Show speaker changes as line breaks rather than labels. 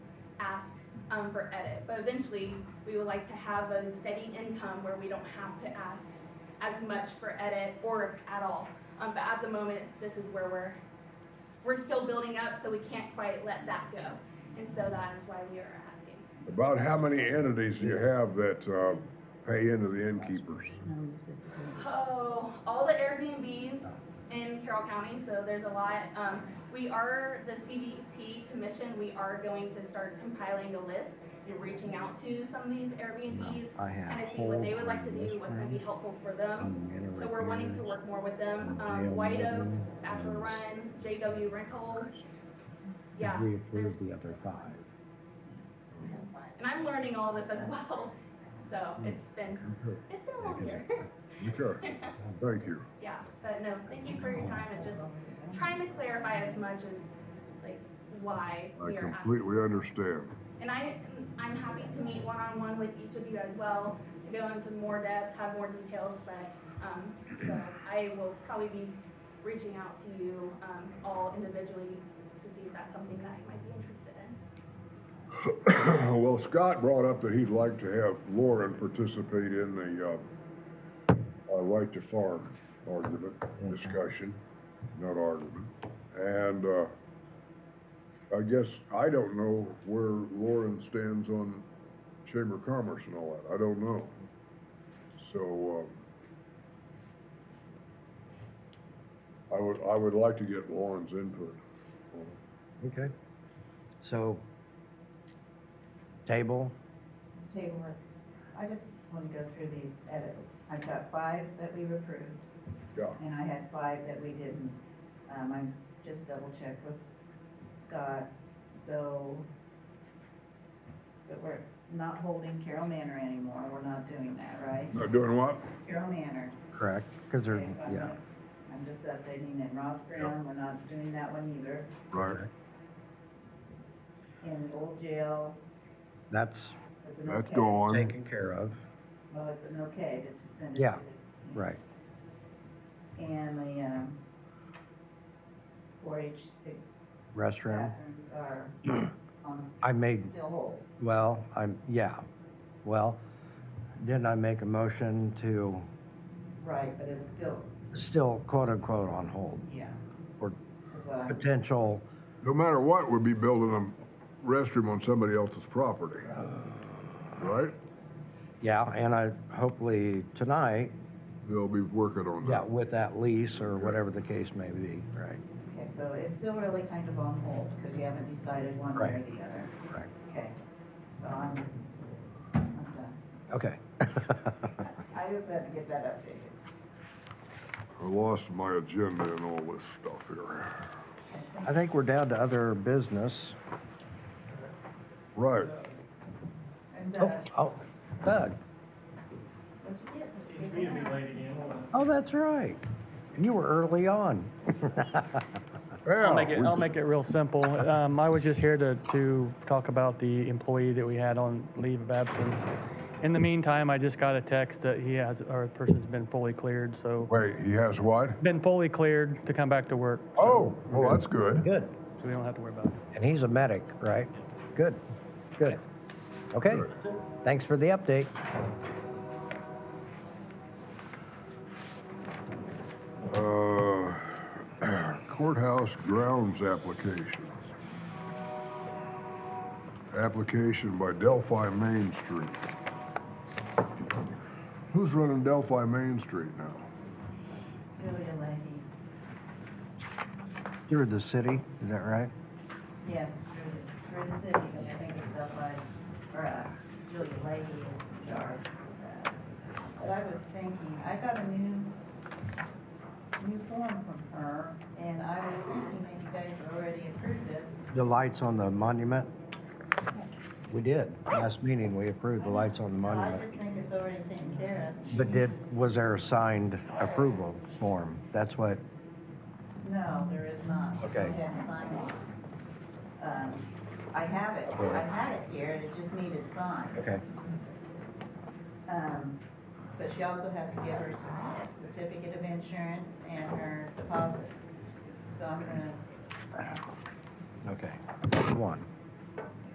um, for edit. But eventually, we would like to have a steady income where we don't have to ask as much for edit or at all. Um, but at the moment, this is where we're, we're still building up, so we can't quite let that go. And so that is why we are asking.
About how many entities do you have that uh, pay into the innkeepers?
No, you said you didn't.
Oh, all the Airbnbs in Carroll County, so there's a lot. Um, we are, the CBT Commission, we are going to start compiling a list and reaching out to some of these Airbnbs.
I have
Kind of see what they would like to do,
whole
what's gonna be
restaurant
helpful for
Um,
them.
and many
So we're wanting to
repairs
work more with them.
and jail
Um, White Oaks,
living
Bachelor
and-
Run, JW Rentals. Yeah.
We
there's-
approved the other five.
And I'm learning all this as well, so
Hmm.
it's been, it's been a long year.
Okay, thank you.
Yeah, but no, thank you for your time and just trying to clarify as much as like why
I
we are asking.
completely understand.
And I, I'm happy to meet one-on-one with each of you as well to go into more depth, have more details, but, um, so I will probably be reaching out to you, um, all individually to see if that's something that you might be interested in.
Well, Scott brought up that he'd like to have Lauren participate in the uh, uh, right to farm argument, discussion, not argument. And uh, I guess, I don't know where Lauren stands on Chamber of Commerce and all that. I don't know. So um, I would, I would like to get Lauren's input. on it.
Okay. So, table,
Tell you what, I just want to go through these edit. I've got five that we approved,
Yeah,
and I had five that we didn't. Um, I just double checked with Scott, so that we're not holding Carol Manor anymore, we're not doing that, right?
Not doing what?
Carol Manor.
correct? Because
Okay,
there's,
so I'm
yeah.
not- I'm just updating, and Ross Brown, we're not doing that one either,
Right.
correct.
and the old jail,
That's
it's an okay.
That's gone.
taken care of,
Well, it's an okay to- to send it.
Yeah,
to the-
right.
And the, um, four H
Restroom,
bathrooms are on,
I made,
still whole.
well, I'm, yeah. Well, didn't I make a motion to
Right, but it's still,
still quote unquote on hold?
yeah.
Or-
Is what I'm,
Potential,
No matter what, we'd be building a restroom on somebody else's property. Right?
yeah, and I, hopefully tonight,
They'll be working on
yeah,
that.
with that lease or whatever the case may be, right?
okay, so it's still really kind of on hold, because you haven't decided one way or
Right.
the other.
Right.
Okay, so I'm, I'm done.
Okay.
I just had to get that updated.
I lost my agenda and all this stuff here.
I think we're down to other business.
Right.
And,
Oh,
uh,
oh, Doug.
what you get for
It's me to
speaking
be
up?
late again.
Oh, that's right. You were early on.
I'll
Yeah,
make it,
Oh, we-
I'll make it real simple. Um, I was just here to, to talk about the employee that we had on leave of absence. In the meantime, I just got a text that he has, or the person's been fully cleared, so,
Wait, he has what?
been fully cleared to come back to work,
Oh, well, that's good.
Good.
so we don't have to worry about it.
And he's a medic, right? Good, good. Okay, thanks for the update.
Uh, courthouse grounds applications. Application by Delphi Main Street. Who's running Delphi Main Street now?
Julia Leahy,
You're the city, is that right?
yes, through, the- through the city, but I think it's stuff like, or, uh, Julia Leahy is in charge of that. But I was thinking, I got a new, new form from her, and I was thinking that you guys already approved this.
The lights on the monument? We did. Last meeting, we approved the lights on the
So I
monument.
just think it's already taken care of.
But did, was there a signed approval form? That's what,
No, there is not.
Okay.
I hadn't signed it. Um, I have it, I had it here, and it just needed signed.
okay.
Um, but she also has to give her cer- certificate of insurance and her deposit. So I'm gonna,
Okay, one.